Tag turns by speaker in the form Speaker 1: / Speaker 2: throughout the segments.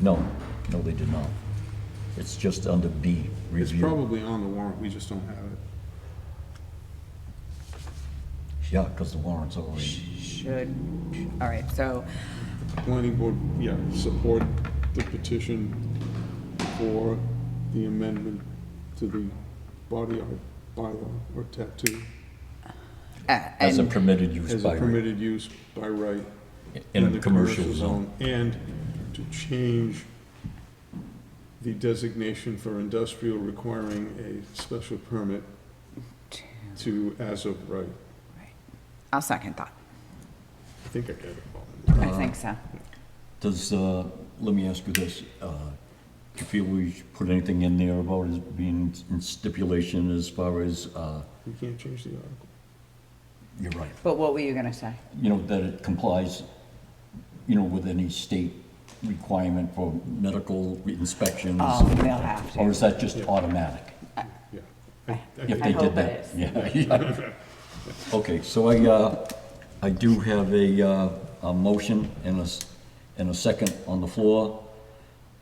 Speaker 1: No, no, they did not. It's just under B,
Speaker 2: It's
Speaker 1: review.
Speaker 2: probably on the warrant, we just don't have it.
Speaker 1: Yeah, because the warrant's already,
Speaker 3: Should, all right, so,
Speaker 2: The planning board, yeah, support the petition for the amendment to the body art bylaw or tattoo
Speaker 3: uh,
Speaker 1: as a
Speaker 3: and,
Speaker 1: permitted use
Speaker 2: as a
Speaker 1: by, right-
Speaker 2: permitted use by right.
Speaker 1: in a commercial zone.
Speaker 2: And to change the designation for industrial requiring a special permit to as of right.
Speaker 3: I'll second that.
Speaker 2: I think I got it all.
Speaker 3: I
Speaker 1: Uh-huh.
Speaker 3: think so.
Speaker 1: Does, uh, let me ask you this, uh, do you feel we should put anything in there about it being in stipulation as far as, uh,
Speaker 2: We can't change the article.
Speaker 1: you're right,
Speaker 3: But what were you gonna say?
Speaker 1: you know, that it complies, you know, with any state requirement for medical inspections?
Speaker 3: Oh, they'll have to.
Speaker 1: Or is that just automatic?
Speaker 2: Yeah. I- I
Speaker 1: If
Speaker 3: I
Speaker 1: they
Speaker 3: hope
Speaker 1: did
Speaker 3: it
Speaker 1: that,
Speaker 3: is.
Speaker 1: yeah, yeah. Okay, so I, uh, I do have a, uh, a motion and a, s- and a second on the floor.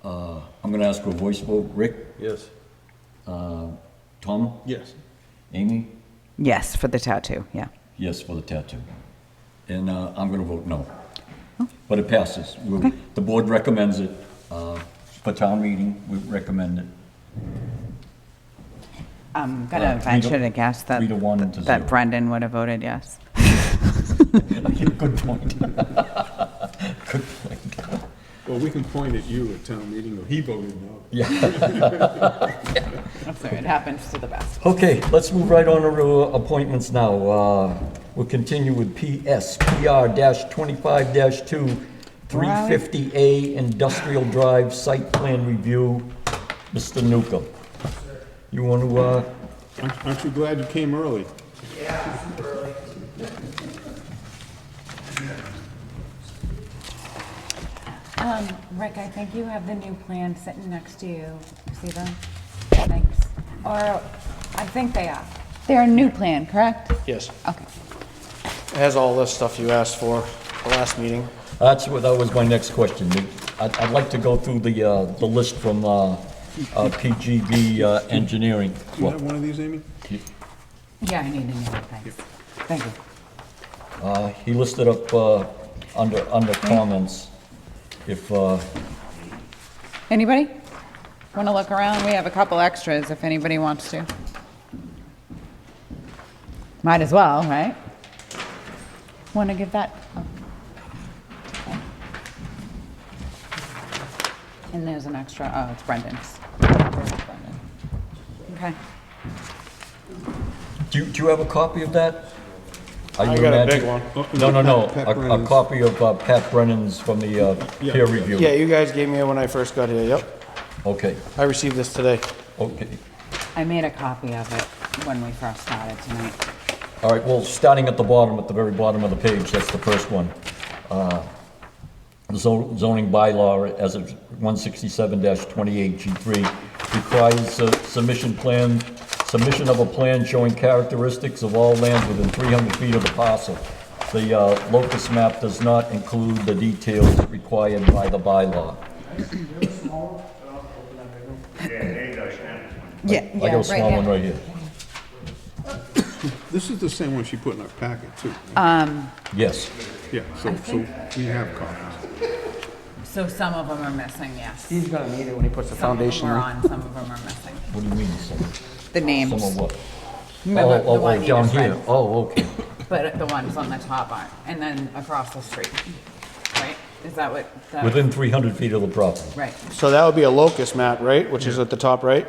Speaker 1: Uh, I'm gonna ask for a voice vote. Rick, Uh,
Speaker 4: Yes.
Speaker 1: Tom,
Speaker 2: Yes.
Speaker 1: Amy?
Speaker 3: Yes, for the tattoo, yeah.
Speaker 1: Yes for the tattoo. And, uh, I'm gonna vote no. But it passes. We'll- The board recommends it, uh, for town meeting, we recommend it.
Speaker 3: I'm
Speaker 1: Uh,
Speaker 3: gonna
Speaker 1: three to-
Speaker 3: venture to guess that,
Speaker 1: three to one to
Speaker 3: that
Speaker 1: zero.
Speaker 3: Brendan would have voted yes.
Speaker 1: Good point. Good point.
Speaker 2: Well, we can point at you at town meeting, he voted no.
Speaker 3: So it happens to the best.
Speaker 1: Okay, let's move right on to uh, appointments now. Uh, We'll continue with PS, PR-25-2, 350A Industrial Drive Site Plan Review. Mr. Nuka, you want to, uh,
Speaker 2: Aren't aren't you glad you came early?
Speaker 5: Um, Rick, I think you have the new plan sitting next to you. See them? Thanks. Or, I think they are. They're a new plan, correct?
Speaker 4: Yes.
Speaker 5: Okay.
Speaker 4: It has all this stuff you asked for the last meeting.
Speaker 1: that's what, that was my next question. I'd I'd like to go through the, uh, the list from uh, uh, PGB uh, Engineering.
Speaker 2: Do you have one of these, Amy?
Speaker 5: Yeah, I need a new one, thanks.
Speaker 3: Thank you.
Speaker 1: Uh, He listed up uh, under, under comments, if, uh,
Speaker 3: Anybody? Wanna look around? We have a couple extras if anybody wants to. Might as well, right?
Speaker 5: Want to give that? oh.
Speaker 3: Oh. And there's an extra, oh, it's Brendan's. There's Brendan. Okay.
Speaker 1: Do you, do you have a copy of that? Are
Speaker 4: I
Speaker 1: you
Speaker 4: got a
Speaker 1: imagine-
Speaker 4: big one.
Speaker 1: No, no, no,
Speaker 2: Oh, Pat- Pat
Speaker 1: a, a
Speaker 2: Brennan's.
Speaker 1: copy of uh, Pat Brennan's from the uh,
Speaker 2: Yeah.
Speaker 1: peer review.
Speaker 4: Yeah, you guys gave me it when I first got here, yep.
Speaker 1: Okay,
Speaker 4: I received this today.
Speaker 1: okay.
Speaker 3: I made a copy of it when we first started tonight.
Speaker 1: All right, well, starting at the bottom, at the very bottom of the page, that's the first one. Uh, zo- Zoning bylaw as of 167-28G3 requires uh, submission plan, submission of a plan showing characteristics of all land within 300 feet of the parcel. The uh, locus map does not include the details required by the bylaw.
Speaker 3: Yeah,
Speaker 1: I got a small one right here.
Speaker 2: This is the same one she put in our packet, too.
Speaker 1: Yes.
Speaker 2: Yeah, so, so we have copies.
Speaker 3: So some of them are missing, yes.
Speaker 4: He's gonna need it when he puts the
Speaker 3: Some of them are on, some of them are missing.
Speaker 1: What do you mean, some,
Speaker 3: The
Speaker 1: some
Speaker 3: names.
Speaker 1: of what?
Speaker 3: Remember,
Speaker 1: Oh, oh,
Speaker 3: the
Speaker 1: oh,
Speaker 3: one you
Speaker 1: down
Speaker 3: just read.
Speaker 1: here. Oh, okay.
Speaker 3: But the ones on the top aren't, and then across the street, right? Is that what, that-
Speaker 1: Within 300 feet of the property.
Speaker 3: right?
Speaker 4: So that would be a locust map, right, which is at the top right?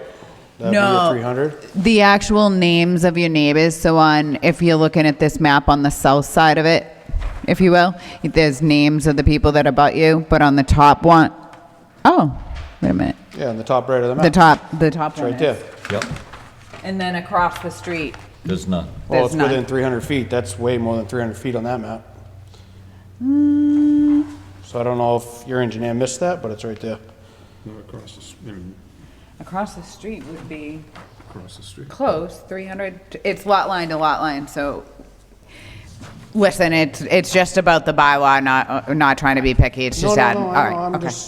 Speaker 4: That'd be
Speaker 3: No.
Speaker 4: a 300?
Speaker 5: The actual names of your neighbors, so on, if you're looking at this map on the south side of it, if you will, there's names of the people that are about you, but on the top one, oh, wait a minute,
Speaker 4: Yeah, on the top right of the
Speaker 5: the
Speaker 4: map.
Speaker 5: top, the top
Speaker 4: It's
Speaker 5: one
Speaker 4: right there.
Speaker 5: is.
Speaker 1: Yep,
Speaker 3: And then across the street,
Speaker 1: there's none.
Speaker 4: Well,
Speaker 3: There's
Speaker 4: it's
Speaker 3: none.
Speaker 4: within 300 feet. That's way more than 300 feet on that map.
Speaker 5: Hmm.
Speaker 4: So I don't know if your engineer missed that, but it's right there.
Speaker 2: Not across the, s- I mean,
Speaker 3: across the street would be
Speaker 2: across the street.
Speaker 3: close, 300,
Speaker 5: It's lot line to lot line, so, listen, it's, it's just about the bylaw, not, not trying to be picky, it's
Speaker 4: No,
Speaker 5: just
Speaker 4: no,
Speaker 5: adding,
Speaker 4: no,
Speaker 5: all
Speaker 4: I know,
Speaker 5: right,
Speaker 4: I'm
Speaker 5: okay.
Speaker 4: just-